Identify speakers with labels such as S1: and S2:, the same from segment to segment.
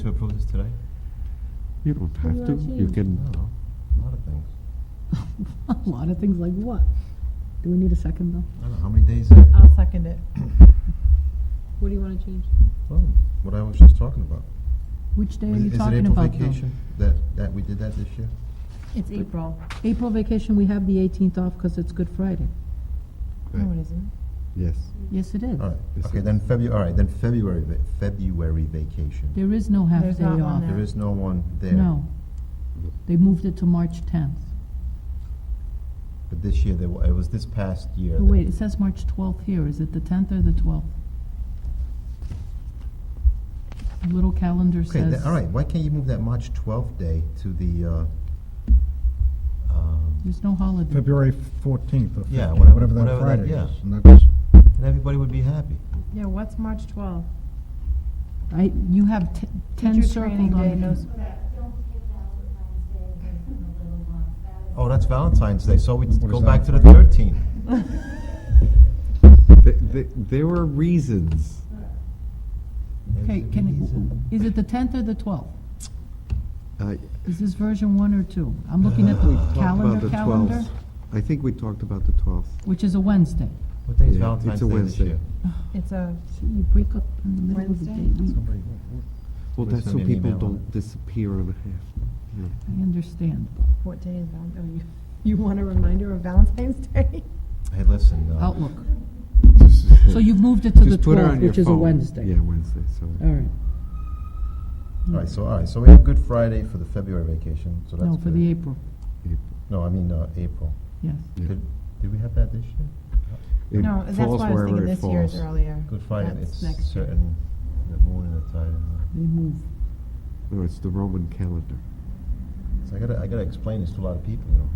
S1: to approve this today?
S2: You don't
S3: What
S2: have to,
S3: about
S2: you
S3: you?
S2: can,
S1: No, a lot of things.
S3: A lot of things like what? Do we need a second though?
S1: I don't know, how many days? uh, is it?
S4: I'll second it.
S3: What do you want to change?
S1: Well, Oh, what I was just talking about.
S3: Which day are
S1: Is
S3: you
S1: is it
S3: talking
S1: April
S3: about though?
S1: vacation? That, that, we did that this year?
S4: It's April.
S3: April vacation, we have the 18th off because it's Good Friday.
S4: No, it isn't.
S2: yes.
S3: Yes, it is.
S1: All right,
S2: Yes,
S1: okay,
S2: sir.
S1: then February, all right, then February, va- February vacation.
S3: There is no half
S4: There's
S3: day
S4: not one
S3: off.
S4: there.
S1: There is no one there.
S3: No. They moved it to March 10th.
S1: But this year, there, wa- it was this past year.
S3: Oh,
S1: that-
S3: Wait, it says March 12th here. Is it the 10th or the 12th? The Little calendar
S1: Okay,
S3: says.
S1: then, all right, why can't you move that March 12th day to the, uh, um,
S3: There's no holiday.
S5: February 14th or
S1: Yeah,
S5: 15th,
S1: whatever-
S5: whatever that
S1: whatever that-
S5: Friday
S1: yeah.
S5: is. And that's-
S1: and everybody would be happy.
S4: Yeah, what's March 12th?
S3: I, you have t- 10
S4: Teacher
S3: circled
S4: training day,
S3: on
S4: no
S3: the.
S4: s-
S1: Oh, that's Valentine's Day, so we
S5: What
S1: go
S5: is
S1: back to
S5: that?
S1: the 13th.
S2: Th- th- There were reasons.
S3: Okay,
S1: There's a
S3: can,
S1: reason.
S3: is it the 10th or the 12th?
S2: I
S3: Is this version one or two? I'm looking at the
S2: Uh, talked Uh-huh. about
S3: calendar,
S2: the
S3: calendar,
S2: 12th. I think we talked about the 12th.
S3: which is a Wednesday.
S1: What day is
S2: Yeah,
S1: Valentine's
S2: it's a
S1: Day this
S2: Wednesday.
S1: year?
S4: It's a,
S3: Gee, You break up in the middle of the day.
S4: Wednesday?
S3: We-
S1: Somebody-
S2: Well,
S1: Please
S2: that's
S1: send
S2: so
S1: me an
S2: people
S1: email on
S2: don't
S1: it.
S2: disappear on a half.
S3: I understand.
S4: what day is Valentine's? oh, You want a reminder of Valentine's Day?
S1: Hey, listen, uh,
S3: Outlook.
S2: yeah.
S3: So you moved it to the
S2: Just put it on
S3: 12th,
S2: your
S3: which is a
S2: phone.
S3: Wednesday.
S2: Yeah, Wednesday, so.
S3: All right.
S1: All right, so, all right, so we have Good Friday for the February vacation, so that's
S3: No,
S1: good.
S3: for the April,
S2: it-
S1: No, I mean, uh, April.
S3: yes.
S2: yeah.
S1: Did, did we have that this year?
S2: It
S4: No, that's
S2: falls
S4: why I was
S2: wherever
S4: thinking
S2: it
S4: this year is
S2: falls.
S4: earlier.
S1: Good Friday,
S4: That's
S1: it's
S4: next year.
S1: certain, the moon and the tide. and
S3: They move.
S2: No, it's the Roman calendar.
S1: all. So I gotta, I gotta explain this to a lot of people, you know.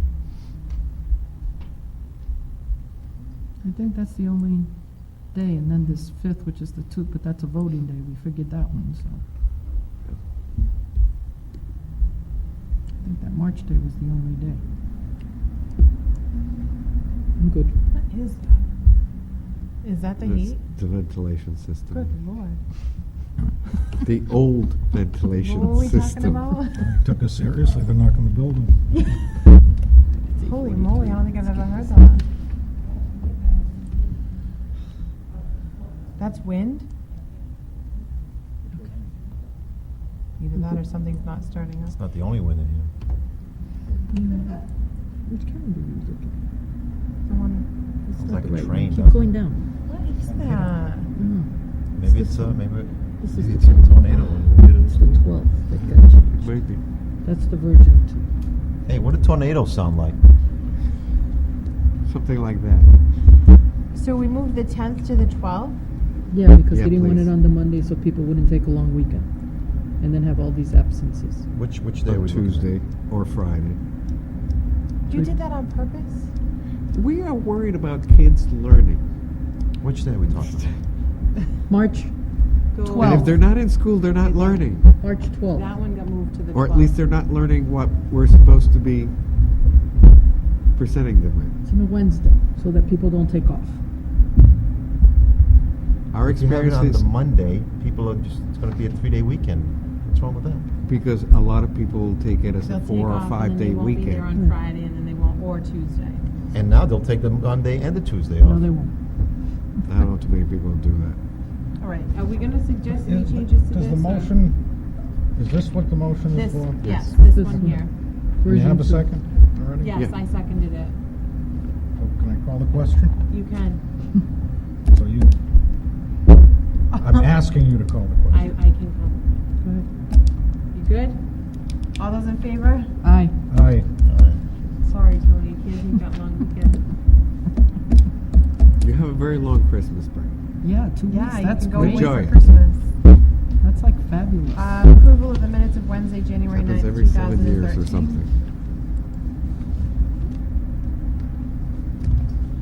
S3: I think that's the only day, and then this 5th, which is the 2nd, but that's a voting day. We figured that one, so. I think that March day was the only day. I'm good.
S4: What is that? Is that the
S2: That's
S4: heat?
S2: The ventilation system.
S4: Good lord.
S2: The old
S4: What were
S2: ventilation
S4: we talking
S2: system.
S4: about?
S5: Took us seriously, they're knocking the building.
S4: Holy moly, I don't think I've ever heard that. That's wind? Either that or something's not starting
S1: It's
S4: up.
S1: not the only wind in here.
S3: Which calendar are you looking at?
S4: Someone,
S1: Sounds
S3: not
S1: like
S3: the
S1: a
S3: right one.
S1: train, doesn't
S3: Keep
S1: it?
S3: going down.
S4: what is that?
S3: No,
S1: Maybe
S3: It's
S1: it's,
S3: the
S1: uh, maybe, it-
S3: This
S1: maybe
S3: is
S1: it's a
S3: the
S1: tornado. when we did
S3: It's
S1: it.
S3: the 12th that got changed.
S2: Maybe.
S3: That's the Virgin two.
S1: Hey, what do tornadoes sound like?
S2: Something like that.
S4: So we moved the tenth to the twelfth?
S3: Yeah, because
S2: Yeah,
S3: they didn't want
S2: please.
S3: it on the Monday so people wouldn't take a long weekend and then have all these absences.
S1: Which, which day
S2: On
S1: we looking at?
S2: Tuesday or Friday.
S4: You did that on purpose?
S2: We are worried about kids learning.
S1: Which day are we talking about?
S3: March,
S2: And
S3: Well-
S2: if they're not in school, they're not learning.
S3: March 12th.
S4: one got moved to the
S2: Or at least they're not learning what we're supposed to be presenting them with.
S3: It's on a Wednesday so that people don't take off.
S2: Our
S1: If you have it
S2: experience
S1: on the
S2: is
S1: Monday, people are just, it's gonna be a three-day weekend. What's wrong with that?
S2: because a lot of people take it as
S6: They'll
S2: a
S6: take
S2: four or
S6: off, and
S2: five
S6: then they
S2: day
S6: won't Be there
S2: weekend.
S6: on Friday and then they won't, or Tuesday.
S1: And now they'll take the Monday and the Tuesday off.
S3: No, they won't.
S2: I don't know too many people do that.
S6: All right, are we gonna suggest any
S5: Is-
S6: changes to this?
S5: Does the
S6: or-
S5: motion, is this what the motion
S6: This,
S5: is for?
S6: yes,
S3: Yes.
S6: this
S3: This
S6: one
S3: one.
S6: here.
S5: Do you
S3: Version
S5: have a
S3: two.
S5: second already?
S6: Yes,
S2: Yeah.
S6: I seconded it.
S5: So Can I call the question?
S6: You can,
S5: So you, I'm asking you to call the
S6: I, I
S5: question.
S6: can come.
S3: Go ahead.
S6: You good? All those in favor?
S3: Aye.
S5: Aye.
S1: All right.
S6: Sorry, Tony, kids, you've got long weekend.
S2: You have a very long Christmas break.
S3: Yeah, two
S4: Yeah,
S3: weeks.
S4: you
S3: That's
S4: can go
S3: great.
S4: away
S2: Enjoy
S4: for
S2: it.
S4: Christmas.
S3: That's like fabulous.
S4: Uh, approval of the minutes of Wednesday, January
S2: happens
S4: 9th,
S2: every seven years or
S4: 2013.
S2: something.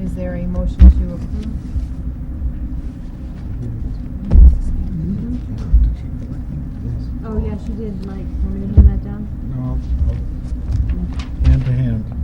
S4: Is there a motion to approve?
S1: Yes.
S6: Oh, yeah, she did, Mike, want me to hand that down?
S5: No, I'll- I'll- hand to hand.